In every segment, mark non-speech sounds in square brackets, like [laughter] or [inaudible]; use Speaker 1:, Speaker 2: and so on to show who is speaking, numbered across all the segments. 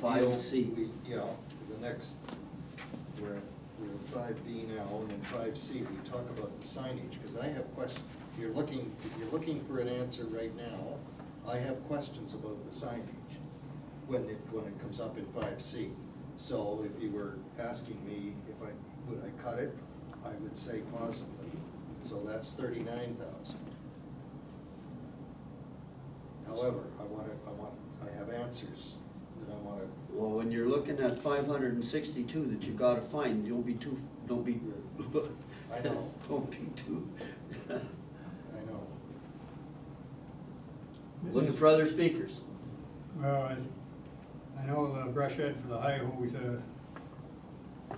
Speaker 1: Five
Speaker 2: deal,
Speaker 1: C.
Speaker 2: we, yeah, the next, we're, we're in five B now, and in five C, we talk about the signage, because I have questions. You're looking, you're looking for an answer right now, I have questions about the signage when it, when it comes up in five C. So if you were asking me if I, would I cut it, I would say possibly, so that's thirty-nine thousand. However, I wanna, I want, I have answers that I wanna
Speaker 1: Well, when you're looking at five hundred and sixty-two that you gotta find, don't be too, don't be.
Speaker 2: I know.
Speaker 1: [laughs] Don't be too.
Speaker 2: I know.
Speaker 1: Looking for other speakers.
Speaker 3: Well, I, I know the brush head for the high hose, uh, uh,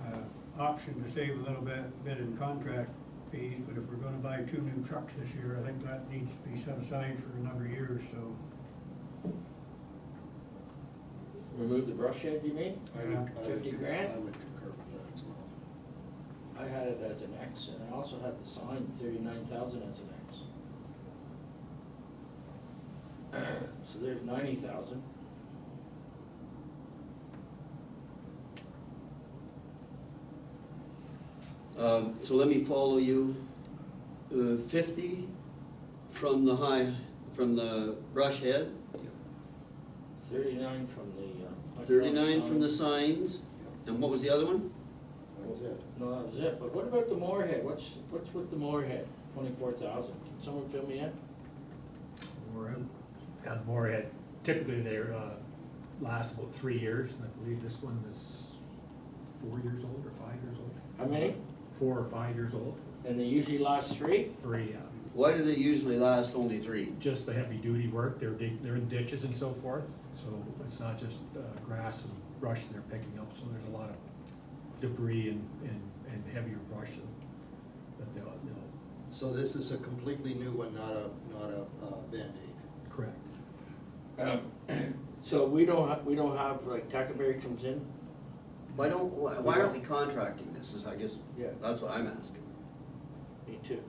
Speaker 3: option to save a little bit, bit in contract fees, but if we're gonna buy two new trucks this year, I think that needs to be set aside for a number of years, so.
Speaker 4: Remove the brush head, you mean?
Speaker 2: I would- I would
Speaker 4: 50
Speaker 2: concur-
Speaker 4: grand?
Speaker 2: I would concur with that as well.
Speaker 4: I had it as an X, and I also had the sign thirty-nine thousand as an X. [coughs] So there's ninety thousand.
Speaker 1: Um, so let me follow you. Uh, fifty from the high, from the brush head,
Speaker 4: Thirty-nine from the, uh.
Speaker 1: thirty-nine
Speaker 4: electronic
Speaker 1: from the
Speaker 4: sign.
Speaker 1: signs,
Speaker 2: Yep,
Speaker 1: and what was the other one?
Speaker 2: That was it.
Speaker 4: No, that was it, but what about the Moorhead, what's, what's with the Moorhead, twenty-four thousand, can someone fill me in?
Speaker 3: Or,
Speaker 5: Yeah, Morehead, typically they're, uh, last about three years, and I believe this one is four years old or five years old.
Speaker 4: How many?
Speaker 5: Four or five years old,
Speaker 4: And they usually last three?
Speaker 5: three, uh,
Speaker 1: Why do they usually last only three?
Speaker 5: just the heavy duty work, they're dig, they're in ditches and so forth, so it's not just, uh, grass and brush they're picking up, so there's a lot of debris and, and, and heavier brush that- that they'll, they'll
Speaker 2: So this is a completely new one, not a, not a uh, Band-Aid.
Speaker 5: correct.
Speaker 4: Um, [coughs] So we don't, ha- we don't have, like, Tackleberry comes in?
Speaker 1: Why don't, why why aren't we contracting this, is I guess,
Speaker 4: Yeah.
Speaker 1: that's what I'm asking.
Speaker 4: Me too.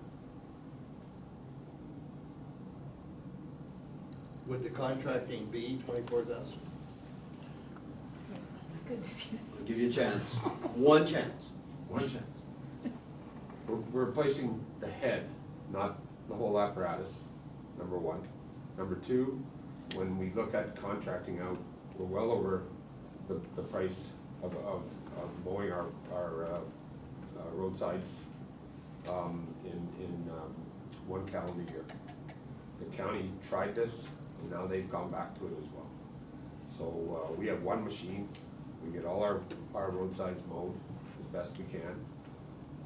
Speaker 2: Would the contracting be twenty-four thousand?
Speaker 6: Oh my goodness,
Speaker 1: I'll
Speaker 6: yes.
Speaker 1: give you a [laughs] chance, one chance.
Speaker 7: One chance. We're, we're replacing the head, not the whole apparatus, number one. Number two, when we look at contracting out, we're well over the, the price of, of, of mowing our, our, uh, uh, roadsides, um, in, in, um, one calendar year. The county tried this, and now they've gone back to it as well. So, uh, we have one machine, we get all our, our roadsides mowed as best we can.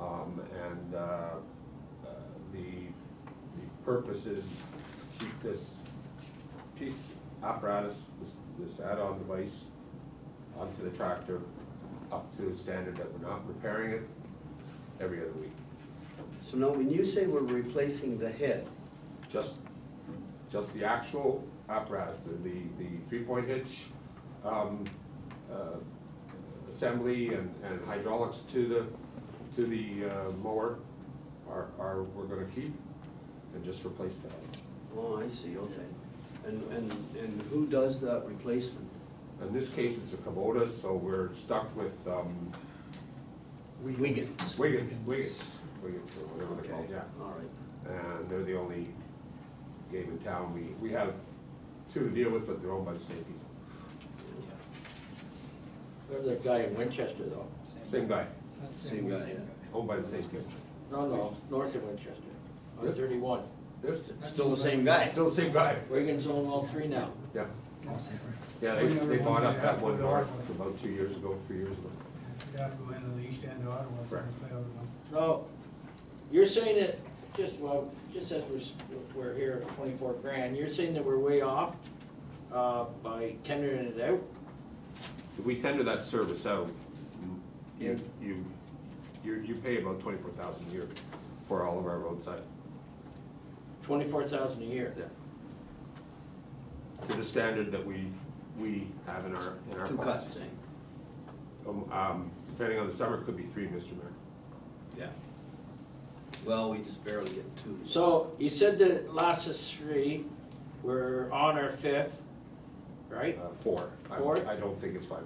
Speaker 7: Um, and, uh, uh, the, the purpose is to keep this piece apparatus, this, this add-on device onto the tractor up to a standard that we're not repairing it every other week.
Speaker 1: So now, when you say we're replacing the head,
Speaker 7: Just, just the actual apparatus, the, the, the three-point hitch, um, uh, assembly and, and hydraulics to the, to the uh, mower are, are, we're gonna keep and just replace that.
Speaker 1: oh, I see, okay. And, and, and who does that replacement?
Speaker 7: In this case, it's a Kubota, so we're stuck with, um,
Speaker 1: Wiggins.
Speaker 7: Wiggins, Wiggins, Wiggins, or whatever
Speaker 1: Okay,
Speaker 7: they're called, yeah.
Speaker 1: all right.
Speaker 7: And they're the only game in town, we, we have two to deal with, but they're owned by the same people,
Speaker 4: Remember that guy in Winchester, though?
Speaker 7: same guy,
Speaker 1: Same guy, yeah.
Speaker 7: owned by the same people.
Speaker 4: No, no, north of Winchester, on
Speaker 7: Yep.
Speaker 4: thirty-one.
Speaker 7: There's,
Speaker 1: Still the same guy.
Speaker 7: still the same guy,
Speaker 4: Wiggins own all three now.
Speaker 7: yeah, yeah, they, they bought up that one north about two years ago, three years ago.
Speaker 3: you'd have to go into the east end of Ottawa for
Speaker 7: Correct.
Speaker 3: the one.
Speaker 4: So, you're saying that, just, well, just as we're, s- we're here at twenty-four grand, you're saying that we're way off, uh, by tendering it out?
Speaker 7: If we tender that service out, you, you, you, you pay about twenty-four thousand a year for all of our roadside.
Speaker 4: Twenty-four thousand a year?
Speaker 7: To the standard that we, we have in our, in our
Speaker 1: Two cuts,
Speaker 7: policies.
Speaker 1: same.
Speaker 7: Um, Um, depending on the summer, it could be three, Mr. Mayor.
Speaker 1: Yeah. Well, we just barely get two.
Speaker 4: So, you said that it lasts us three, we're on our fifth, right?
Speaker 7: Uh, four. I-
Speaker 4: Four?
Speaker 7: I don't think it's five.